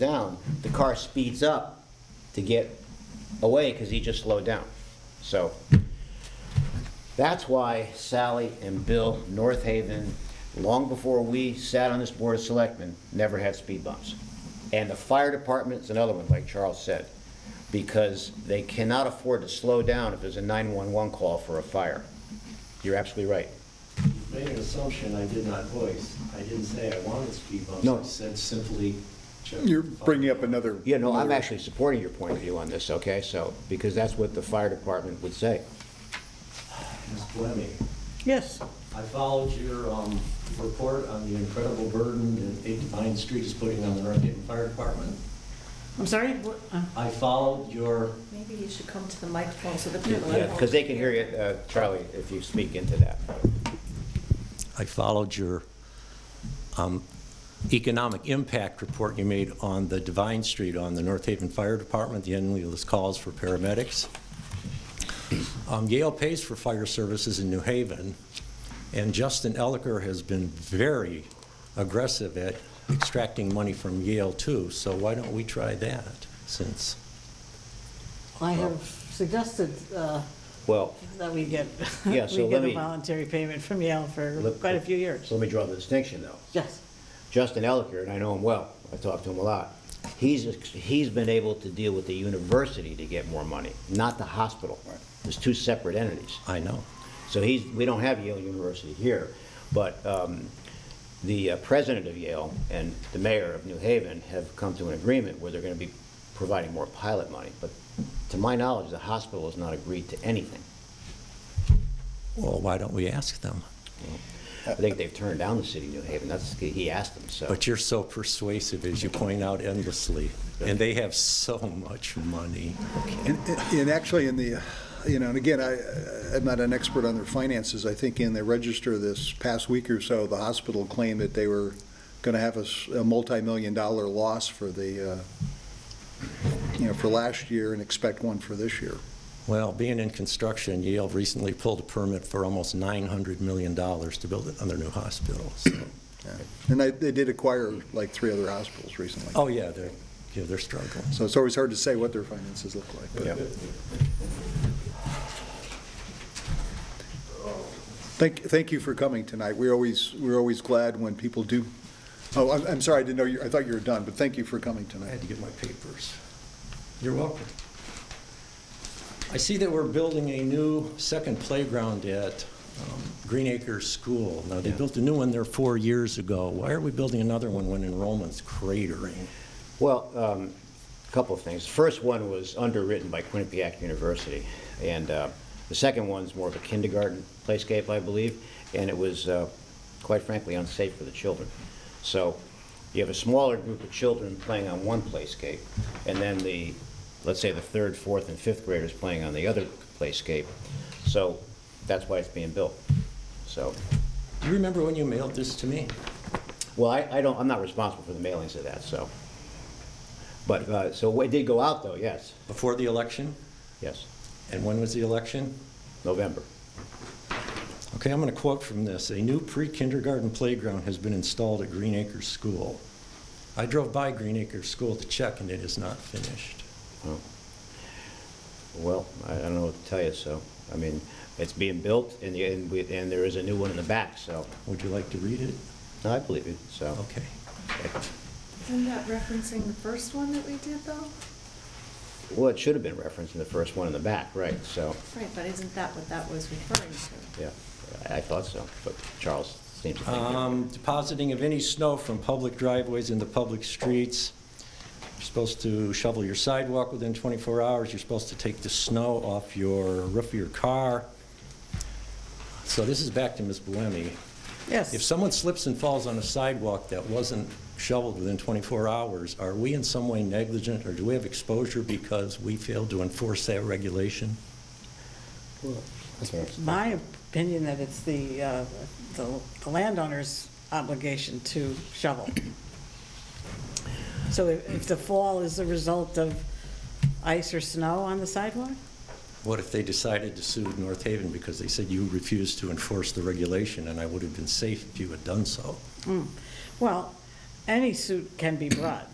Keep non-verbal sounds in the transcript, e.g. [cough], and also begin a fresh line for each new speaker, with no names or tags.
down, the car speeds up to get away because he just slowed down. So that's why Sally and Bill North Haven, long before we sat on this board of selectmen, never had speed bumps. And the fire department's another one, like Charles said, because they cannot afford to slow down if there's a 911 call for a fire. You're absolutely right.
Made an assumption I did not voice. I didn't say I wanted speed bumps.
No.
I said simply. uh, check
You're
the file.
bringing up another.
You know, I'm
another-
actually supporting your point of view on this, okay? So, because that's what the fire department would say.
Ms. Fleming,
Yes,
I followed your um, report on the incredible burden that 8 Vine Street is putting on the North Dayton Fire Department.
I'm sorry? what- uh,
I followed your,
Maybe you should come to the microphone so that people.
Yeah, because they can hear you, uh, Charlie, if you speak into that.
I followed your um, economic impact report you made on the Divine Street, on the North Haven Fire Department, the endless calls for paramedics. Um, Yale pays for fire services in New Haven, and Justin Elicker has been very aggressive at extracting money from Yale too, so why don't we try that, since
I have suggested uh,
Well,
that we get, [laughs] we
Yeah,
get
so let
a
me-
voluntary payment from Yale for
Let-
quite a few years.
so let me draw the distinction, though.
Yes,
Justin Elicker, and I know him well, I talk to him a lot, he's, he's been able to deal with the university to get more money, not the hospital. There's two separate entities.
I know.
So he's, we don't have Yale University here, but um, the uh, president of Yale and the mayor of New Haven have come to an agreement where they're going to be providing more pilot money. But to my knowledge, the hospital has not agreed to anything.
Well, why don't we ask them?
I think they've turned down the city of New Haven, that's, he asked them, so.
But you're so persuasive, as you point out endlessly, and they have so much money.
And, and actually, in the, you know, and again, I, I'm not an expert on their finances. I think in the register this past week or so, the hospital claimed that they were going to have a, s- a multi-million dollar loss for the, uh, you know, for last year and expect one for this year.
Well, being in construction, Yale recently pulled a permit for almost $900 million to build another new hospital. so-
Yeah. And they, they did acquire like three other hospitals recently.
Oh, yeah, they're, yeah, they're struggling.
So it's always hard to say what their finances look like. but- Thank, thank you for coming tonight. We're always, we're always glad when people do, oh, I'm, I'm sorry, I didn't know, you I thought you were done, but thank you for coming
I
tonight.
had to get my papers. You're welcome. I see that we're building a new second playground at um, Green Acres School. Now, they built a new one there four years ago. Why are we building another one when enrollment's cratering?
Well, um, a couple of things. The First one was underwritten by Quinnipiac University, and uh, the second one's more of a kindergarten playscape, I believe, and it was, uh, quite frankly, unsafe for the children. So you have a smaller group of children playing on one playscape, and then the, let's say, the third, fourth, and fifth graders playing on the other playscape. So that's why it's being built. So,
Do you remember when you mailed this to me?
well, I, I don't, I'm not responsible for the mailings of that, so. But, uh, so it did go out, though, yes.
Before the election?
Yes,
And when was the election?
November.
Okay, I'm going to quote from this. "A new pre-kindergarten playground has been installed at Green Acres School. I drove by Green Acres School to check, and it is not finished."
Oh. Well, I I don't know what to tell you, so, I mean, it's being built, and, the- and we, and there is a new one in the back, so,
Would you like to read it?
I believe it, so.
Okay.
Isn't that referencing the first one that we did though?
Well, it should have been referenced in the first one in the back, right, so,
Right, but isn't that what that was referring to?
yeah, I I thought so, but Charles seems to think different.
Um, Depositing of any snow from public driveways into public streets. You're supposed to shovel your sidewalk within 24 hours. You're supposed to take the snow off your roof of your car. So this is back to Ms. Buemi. If
yes.
someone slips and falls on a sidewalk that wasn't shoveled within 24 hours, are we in some way negligent, or do we have exposure because we failed to enforce that regulation?
Okay.
My opinion that it's the, uh, the the landowner's obligation to shovel. So if if the fall is the result of ice or snow on the sidewalk?
What if they decided to sue North Haven because they said you refused to enforce the regulation, and I would have been safe if you had done so?
Well, any suit can be brought.